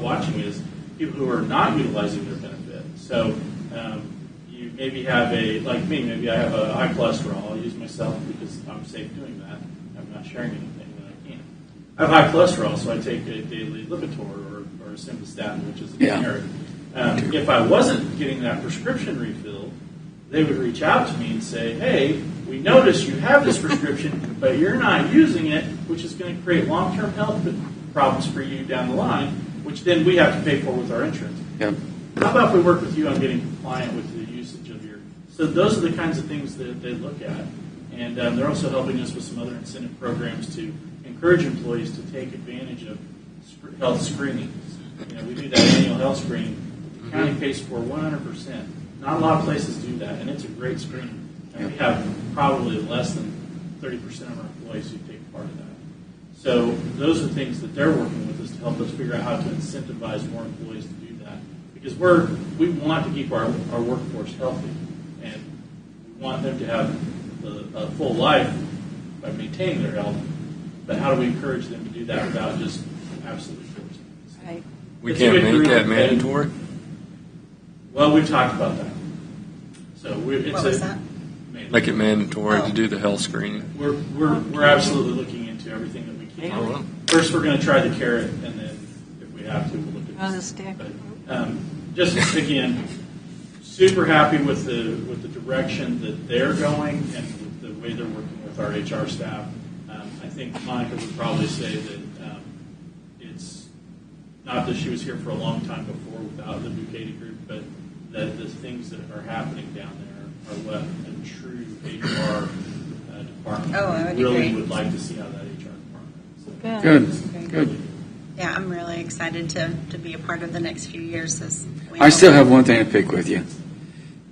watching is people who are not utilizing their benefit. So um, you maybe have a, like me, maybe I have a high cholesterol. I'll use myself because I'm safe doing that. I'm not sharing anything that I can. I have high cholesterol, so I take a daily Lipitor or, or Simvastatin, which is a Yeah. generic. Um, if I wasn't getting that prescription refilled, they would reach out to me and say, hey, we notice you have this prescription, but you're not using it, which is going to create long term health problems for you down the line, which then we have to pay for with our insurance. Yeah. How about if we work with you on getting compliant with the usage of your? So those are the kinds of things that they look at, and um, they're also helping us with some other incentive programs to encourage employees to take advantage of sc- health screenings. You know, we do that annual health screening. that The county pays for 100 percent. Not a lot of places do that, and it's a great screening. And we have probably less than 30 percent of our employees who take part of that. So those are things that they're working with us to help us figure out how to incentivize more employees to do that. Because we're, we want to keep our, our workforce healthy and we want them to have the, a full life by maintaining their health. But how do we encourage them to do that without just absolutely forcing? it? Right. We It's a can't good group, make that and- mandatory? Well, we've talked about that. So we're, it's What a. was that? Man, Make it mandatory to Oh. do the health screening? We're, we're, we're absolutely looking into everything that we I can. don't know. First, we're going to try the carrot, and then if we have to, we'll look at On the the stick. But, um, just again, super happy with the with the direction that they're going and with the way they're working with our HR staff. Um, I think Monica would probably say that um, it's not that she was here for a long time before without the Bucati group, but that the things that are happening down there are what a true HR uh, department Oh, I would really agree. would like to see out of that HR department. So, Good. really Good. Yeah, I'm really excited to, to be a part of the next few years as we I still have one thing to pick with you.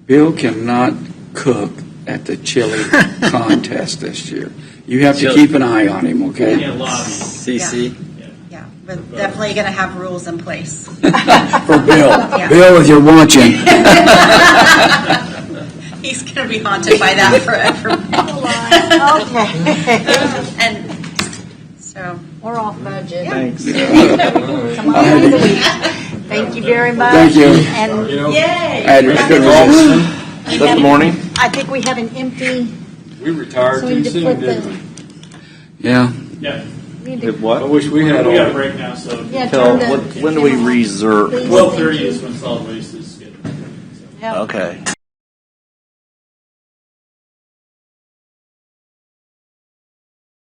Bill cannot cook at the chili contest this year. You have to Chili. keep an eye on him, We okay? can't lobby. CC. Yeah. Yeah, but definitely going to have rules in place. For Bill. Yeah. Bill, if you're watching, He's going to be haunted by that forever. Okay, And so, we're off budget. Thanks. Come on, end of the week. Thank you very much. Thank you. And yay! Ed, it's good resist. Good morning. I think we have an empty, We retired So we too just soon, put the- didn't we? Yeah, Yeah. need Did to, I what? wish we We had all. got a break now, so yeah, Tell, turn what, the. when do we reserve? Please, twelve thank thirty you. is when solid waste is scheduled. Yep. Okay.